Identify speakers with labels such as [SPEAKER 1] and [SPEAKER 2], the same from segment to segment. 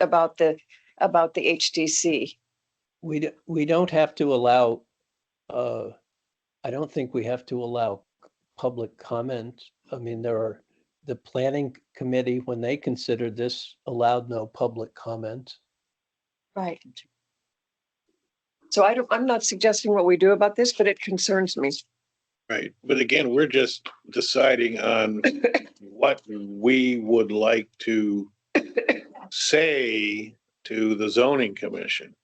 [SPEAKER 1] about the, about the HDC.
[SPEAKER 2] We, d- we don't have to allow, uh, I don't think we have to allow public comment. I mean, there are, the planning committee, when they considered this, allowed no public comment.
[SPEAKER 1] Right. So I don't, I'm not suggesting what we do about this, but it concerns me.
[SPEAKER 3] Right, but again, we're just deciding on what we would like to say to the zoning commission.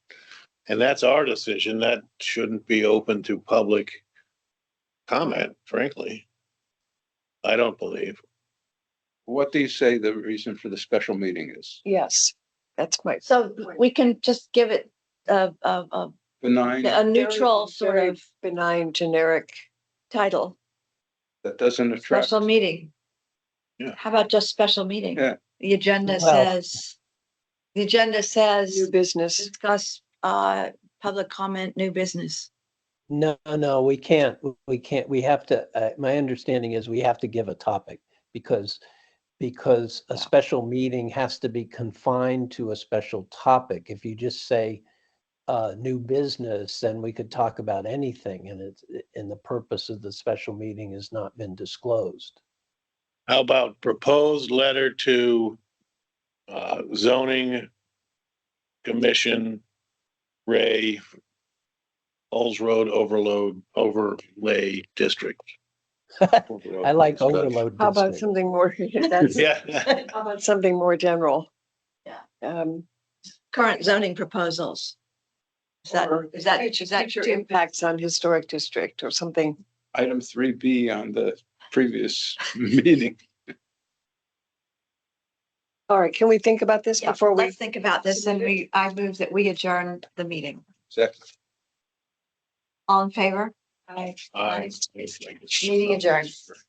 [SPEAKER 3] And that's our decision. That shouldn't be open to public comment, frankly. I don't believe.
[SPEAKER 4] What do you say the reason for the special meeting is?
[SPEAKER 1] Yes, that's my,
[SPEAKER 5] So we can just give it a, a, a,
[SPEAKER 4] Benign,
[SPEAKER 5] a
[SPEAKER 1] Very-
[SPEAKER 5] neutral sort
[SPEAKER 1] very
[SPEAKER 5] of
[SPEAKER 1] benign, generic,
[SPEAKER 5] title,
[SPEAKER 4] that doesn't attract,
[SPEAKER 5] special meeting.
[SPEAKER 3] Yeah.
[SPEAKER 5] How about just special meeting?
[SPEAKER 4] Yeah.
[SPEAKER 5] The agenda
[SPEAKER 2] Well-
[SPEAKER 5] says, the agenda
[SPEAKER 1] new
[SPEAKER 5] says
[SPEAKER 1] business.
[SPEAKER 5] discuss, uh, public comment, new business.
[SPEAKER 2] No, no, we can't, we can't, we have to, uh, my understanding is we have to give a topic because, because a special meeting has to be confined to a special topic. If you just say, uh, new business, then we could talk about anything and it's, and the purpose of the special meeting has not been disclosed.
[SPEAKER 3] How about proposed letter to uh, zoning commission, Ray, Olds Road overload, overlay district?
[SPEAKER 2] I like overload.
[SPEAKER 1] How about
[SPEAKER 2] district.
[SPEAKER 1] something more, that's,
[SPEAKER 3] Yeah,
[SPEAKER 1] how about something more general?
[SPEAKER 5] Yeah.
[SPEAKER 1] Um,
[SPEAKER 5] Current zoning proposals. Is that,
[SPEAKER 1] Or
[SPEAKER 5] is that,
[SPEAKER 1] future
[SPEAKER 5] is that
[SPEAKER 1] future
[SPEAKER 5] too-
[SPEAKER 1] impacts on historic district or something?
[SPEAKER 4] item three B on the previous meeting.
[SPEAKER 1] All right, can we think about this
[SPEAKER 5] Yeah,
[SPEAKER 1] before we,
[SPEAKER 5] Let's think about this and we, I move that we adjourn the meeting.
[SPEAKER 4] Second.
[SPEAKER 5] All in favor?
[SPEAKER 3] I-
[SPEAKER 5] Meeting adjourned.